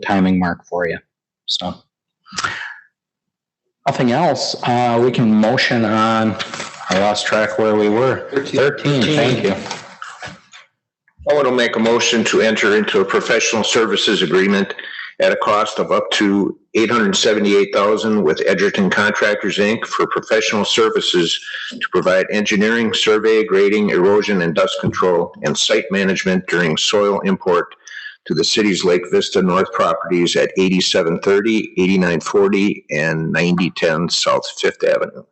timing mark for you. So. Nothing else, uh, we can motion on, I lost track where we were. Thirteen, thank you. I want to make a motion to enter into a professional services agreement at a cost of up to eight hundred and seventy-eight thousand with Edgerton Contractors, Inc. for professional services to provide engineering, survey, grading, erosion and dust control, and site management during soil import to the city's Lake Vista North properties at 8730, 8940, and ninety-ten South Fifth Avenue.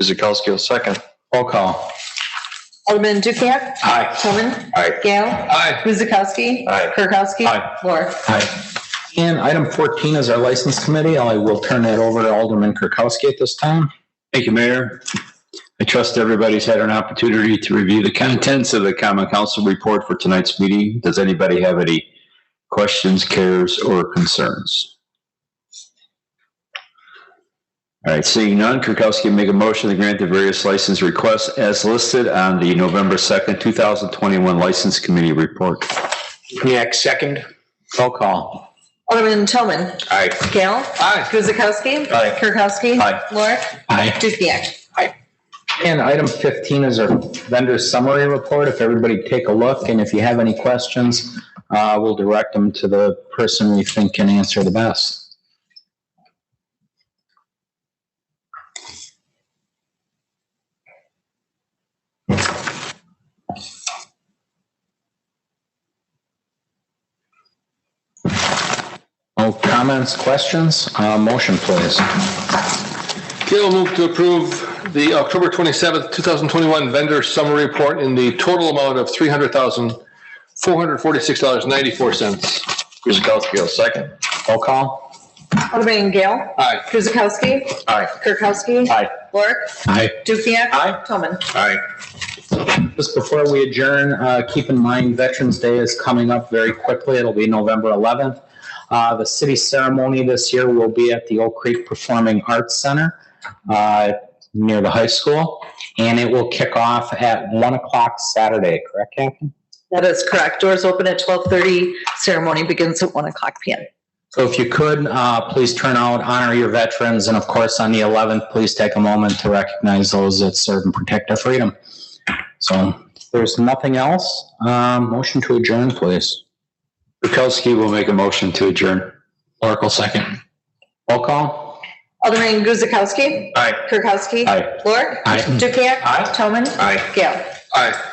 Kuzakowski will second. Roll call. Alderman Dukenyak. Aye. Toman. Aye. Gale. Aye. Guzekowski. Aye. Kirkowski. Aye. Lore. Aye. And item fourteen is our license committee. I will turn that over to Alderman Kirkowski at this time. Thank you, Mayor. I trust everybody's had an opportunity to review the contents of the common council report for tonight's meeting. Does anybody have any questions, cares, or concerns? All right, seeing none, Kirkowski will make a motion to grant the various license requests as listed on the November 2nd, 2021 License Committee Report. Dukenyak, second. Roll call. Alderman Toman. Aye. Gale. Aye. Guzekowski. Aye. Kirkowski. Aye. Lore. Aye. Dukenyak. And item fifteen is our vendor summary report. If everybody take a look and if you have any questions, uh, we'll direct them to the person we think can answer the best. No comments, questions? Uh, motion please. Gail will move to approve the October 27th, 2021 vendor summary report in the total amount of $300,446.94. Kuzakowski will second. Roll call. Alderman Gale. Aye. Guzekowski. Aye. Kirkowski. Aye. Lore. Aye. Dukenyak. Aye. Toman. Aye. Just before we adjourn, uh, keep in mind Veterans Day is coming up very quickly. It'll be November 11th. Uh, The city ceremony this year will be at the Oak Creek Performing Arts Center uh, near the high school, and it will kick off at 1 o'clock Saturday, correct, Captain? That is correct. Doors open at 12:30. Ceremony begins at 1 o'clock PM. So if you could, uh, please turn out, honor your veterans, and of course, on the 11th, please take a moment to recognize those that serve and protect our freedom. So if there's nothing else, um, motion to adjourn, please. Kirkowski will make a motion to adjourn. Oracle second. Roll call. Alderman Guzekowski. Aye. Kirkowski. Aye. Lore. Aye. Dukenyak. Toman. Aye. Gale. Aye.